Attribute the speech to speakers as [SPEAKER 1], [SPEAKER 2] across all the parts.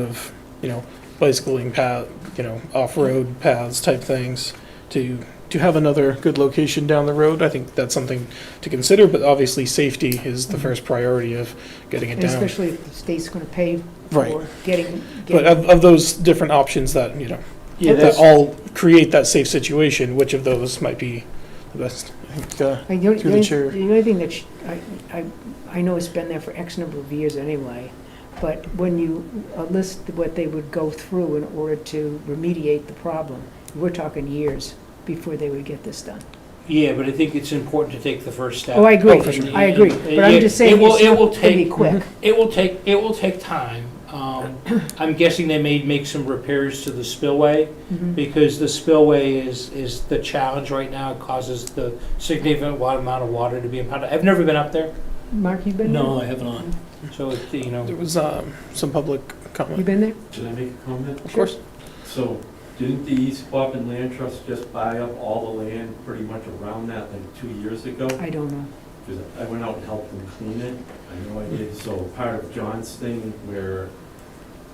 [SPEAKER 1] of, you know, bicycling path, you know, off-road paths type things to, to have another good location down the road. I think that's something to consider, but obviously, safety is the first priority of getting it
[SPEAKER 2] Mm-hmm. And
[SPEAKER 1] down.
[SPEAKER 2] especially if the state's going to pay
[SPEAKER 1] Right.
[SPEAKER 2] for getting,
[SPEAKER 1] But
[SPEAKER 2] getting,
[SPEAKER 1] of, of those different options that, you know,
[SPEAKER 3] uh, Yeah,
[SPEAKER 1] that
[SPEAKER 3] that's,
[SPEAKER 1] all create that safe situation, which of those might be the best? I think, uh,
[SPEAKER 2] I know, the
[SPEAKER 1] through the
[SPEAKER 2] only-
[SPEAKER 1] chair.
[SPEAKER 2] the only thing that, sh- I, I, I know it's been there for X number of years anyway, but when you uh, list what they would go through in order to remediate the problem, we're talking years before they would get this done.
[SPEAKER 3] yeah, but I think it's important to take the first step.
[SPEAKER 2] Oh, I agree,
[SPEAKER 1] Oh, for sure.
[SPEAKER 2] I agree, but
[SPEAKER 3] Yeah,
[SPEAKER 2] I'm just
[SPEAKER 3] it
[SPEAKER 2] saying,
[SPEAKER 3] will-
[SPEAKER 2] it's
[SPEAKER 3] it will
[SPEAKER 2] not going to be
[SPEAKER 3] take-
[SPEAKER 2] quick.
[SPEAKER 3] It will take, it will take time. Um, I'm guessing they may make some repairs to the spillway,
[SPEAKER 2] Mhm.
[SPEAKER 3] because the spillway is, is the challenge right now. It causes the significant wa- amount of water to be impounded. I've never been up there,
[SPEAKER 2] Mark, you been there?
[SPEAKER 4] No, I have not.
[SPEAKER 3] so, it's, you know,
[SPEAKER 1] there was, um, some public
[SPEAKER 2] You
[SPEAKER 1] comment,
[SPEAKER 2] been there?
[SPEAKER 4] Should I make a comment?
[SPEAKER 1] of course.
[SPEAKER 4] So, didn't the East Quabbin Land Trust just buy up all the land pretty much around that like two years ago?
[SPEAKER 2] I don't know.
[SPEAKER 4] Because I went out and helped them clean it, I know I did, so part of John's thing, we're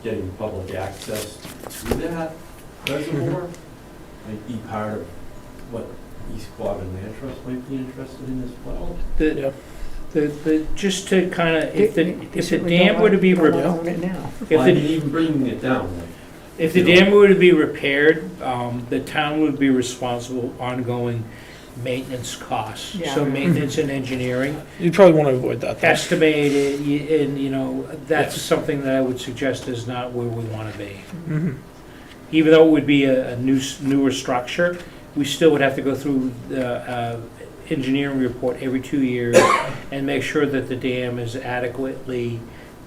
[SPEAKER 4] getting public access to that reservoir, might be part of what East Quabbin Land Trust might be interested in as well.
[SPEAKER 3] the,
[SPEAKER 1] Yeah,
[SPEAKER 3] the, the, just to kind of, if the,
[SPEAKER 2] They- they
[SPEAKER 3] if the
[SPEAKER 2] certainly don't
[SPEAKER 3] dam were to
[SPEAKER 2] wanna-
[SPEAKER 3] be,
[SPEAKER 2] don't
[SPEAKER 3] re-
[SPEAKER 2] wanna own it now.
[SPEAKER 3] if
[SPEAKER 4] Why
[SPEAKER 3] the,
[SPEAKER 4] even bringing it down, like,
[SPEAKER 3] if the dam were to be repaired, um, the town would be responsible ongoing maintenance costs.
[SPEAKER 2] Yeah.
[SPEAKER 3] So maintenance and engineering.
[SPEAKER 1] you'd probably want to avoid that. though.
[SPEAKER 3] estimated, y- and, you know, that's something that I would suggest is not where we want to be.
[SPEAKER 1] Mhm.
[SPEAKER 3] Even though it would be a a new, s- newer structure, we still would have to go through the uh, engineering report every two years and make sure that the dam is adequately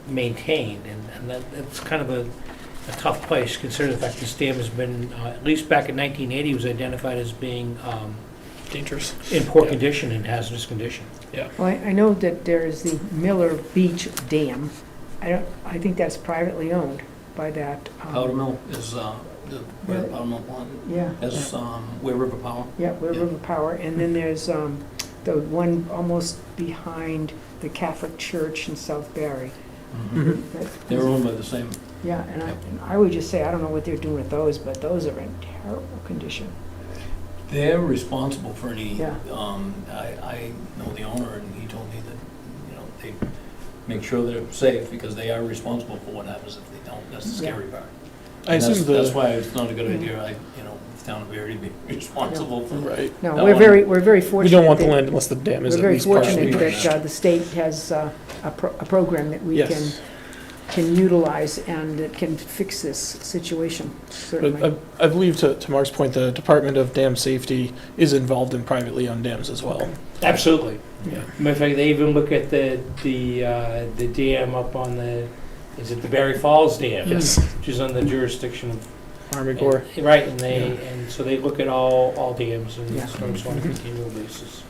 [SPEAKER 3] maintained, and and that, that's kind of a a tough place, considering the fact this dam has been, uh, at least back in 1980, was identified as being um,
[SPEAKER 1] Dangerous.
[SPEAKER 3] in poor
[SPEAKER 1] Yeah.
[SPEAKER 3] condition and hazardous condition.
[SPEAKER 2] Well, I- I know that there is the Miller Beach Dam. I don't, I think that's privately owned by that. um,
[SPEAKER 5] Powder Mill is, uh, the, where the Powder Mill plant,
[SPEAKER 2] Yeah,
[SPEAKER 5] that's, um, where River Power.
[SPEAKER 2] yeah, where River Power, and then there's um, the one almost behind the Catholic Church in South Barry.
[SPEAKER 5] Mm-hmm.
[SPEAKER 1] Mhm.
[SPEAKER 2] That-
[SPEAKER 5] They're owned by the same,
[SPEAKER 2] Yeah, and I, and I would just say, I don't know what they're doing with those, but those are in terrible condition.
[SPEAKER 5] they're responsible for any,
[SPEAKER 2] Yeah.
[SPEAKER 5] um, I, I know the owner, and he told me that, you know, they make sure they're safe, because they are responsible for what happens if they don't, that's the
[SPEAKER 2] Yeah.
[SPEAKER 5] scary part.
[SPEAKER 1] I
[SPEAKER 5] And that's-
[SPEAKER 1] assume the,
[SPEAKER 5] That's why it's not a good
[SPEAKER 2] Yeah.
[SPEAKER 5] idea, I, you know, the town of Erie to be responsible for.
[SPEAKER 1] right,
[SPEAKER 2] No,
[SPEAKER 5] That
[SPEAKER 2] we're
[SPEAKER 5] one-
[SPEAKER 2] very, we're very fortunate.
[SPEAKER 1] we don't want the
[SPEAKER 2] that-
[SPEAKER 1] land unless the dam is
[SPEAKER 2] We're
[SPEAKER 1] at
[SPEAKER 2] very
[SPEAKER 1] least partially
[SPEAKER 2] fortunate
[SPEAKER 1] damaged.
[SPEAKER 2] that uh, the state has uh, a pro- a program that we can
[SPEAKER 1] Yes,
[SPEAKER 2] can utilize and that can fix this situation,
[SPEAKER 1] but uh,
[SPEAKER 2] certainly.
[SPEAKER 1] I- I believe to, to Mark's point, the Department of Dam Safety is involved in privately owned dams as well.
[SPEAKER 3] Absolutely.
[SPEAKER 1] Yeah.
[SPEAKER 3] Matter of fact, they even look at the, the, uh, the dam up on the, is it the Berry Falls Dam?
[SPEAKER 2] Mm.
[SPEAKER 1] Yes,
[SPEAKER 3] Which is on the jurisdiction of.
[SPEAKER 1] Army Corps.
[SPEAKER 3] Right, and they, and so they look at all, all dams
[SPEAKER 2] Yeah.
[SPEAKER 3] and storms on a continual basis.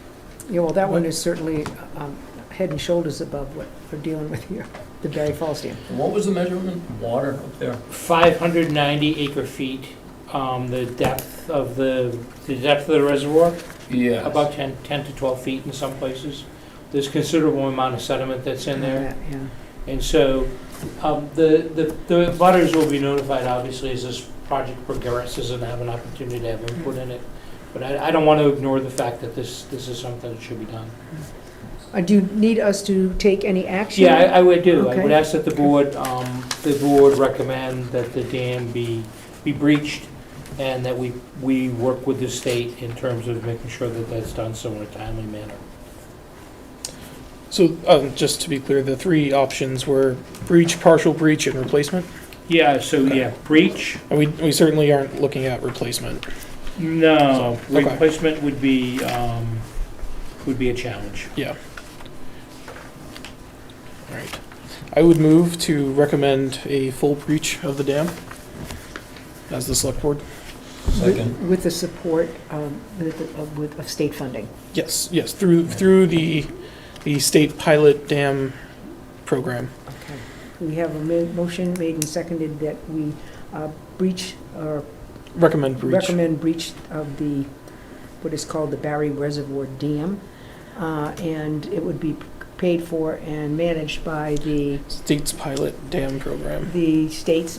[SPEAKER 2] Yeah, well, that one is certainly um, head and shoulders above what we're dealing with here, the Berry Falls Dam.
[SPEAKER 5] And What was the measurement, water up there?
[SPEAKER 3] Five hundred ninety acre feet, um, the depth of the, the depth of the reservoir,
[SPEAKER 5] Yeah.
[SPEAKER 3] about 10 10 to twelve feet in some places. There's considerable amount of sediment that's in there.
[SPEAKER 2] Yeah.
[SPEAKER 3] And so, um, the, the, the butters will be notified, obviously, as this project progresses and have an opportunity to have input in it. But I, I don't want to ignore the fact that this, this is something that should be done.
[SPEAKER 2] Uh, Do you need us to take any action?
[SPEAKER 3] Yeah, I, I would do. I would
[SPEAKER 2] Okay.
[SPEAKER 3] ask that the board, um, the board recommend that the dam be, be breached and that we, we work with the state in terms of making sure that that's done so in a timely manner.
[SPEAKER 1] So, um, just to be clear, the three options were breach, partial breach, and replacement.
[SPEAKER 3] Yeah, so,
[SPEAKER 1] yeah,
[SPEAKER 3] yeah, breach,
[SPEAKER 1] And we, we certainly aren't looking at replacement.
[SPEAKER 3] No,
[SPEAKER 1] So, okay.
[SPEAKER 3] replacement would be, um, would be a challenge.
[SPEAKER 1] All right. I would move to recommend a full breach of the dam as the select board.
[SPEAKER 5] Second.
[SPEAKER 2] With the support um, with the- of with- of state funding.
[SPEAKER 1] Yes, yes, through, through the, the state pilot dam program.
[SPEAKER 2] Okay. We have a ma- motion made and seconded that we uh, breach or
[SPEAKER 1] Recommend breach.
[SPEAKER 2] recommend breach of the, what is called the Barry Reservoir Dam, uh, and it would be paid for and managed by the,
[SPEAKER 1] State's pilot dam program.
[SPEAKER 2] the state's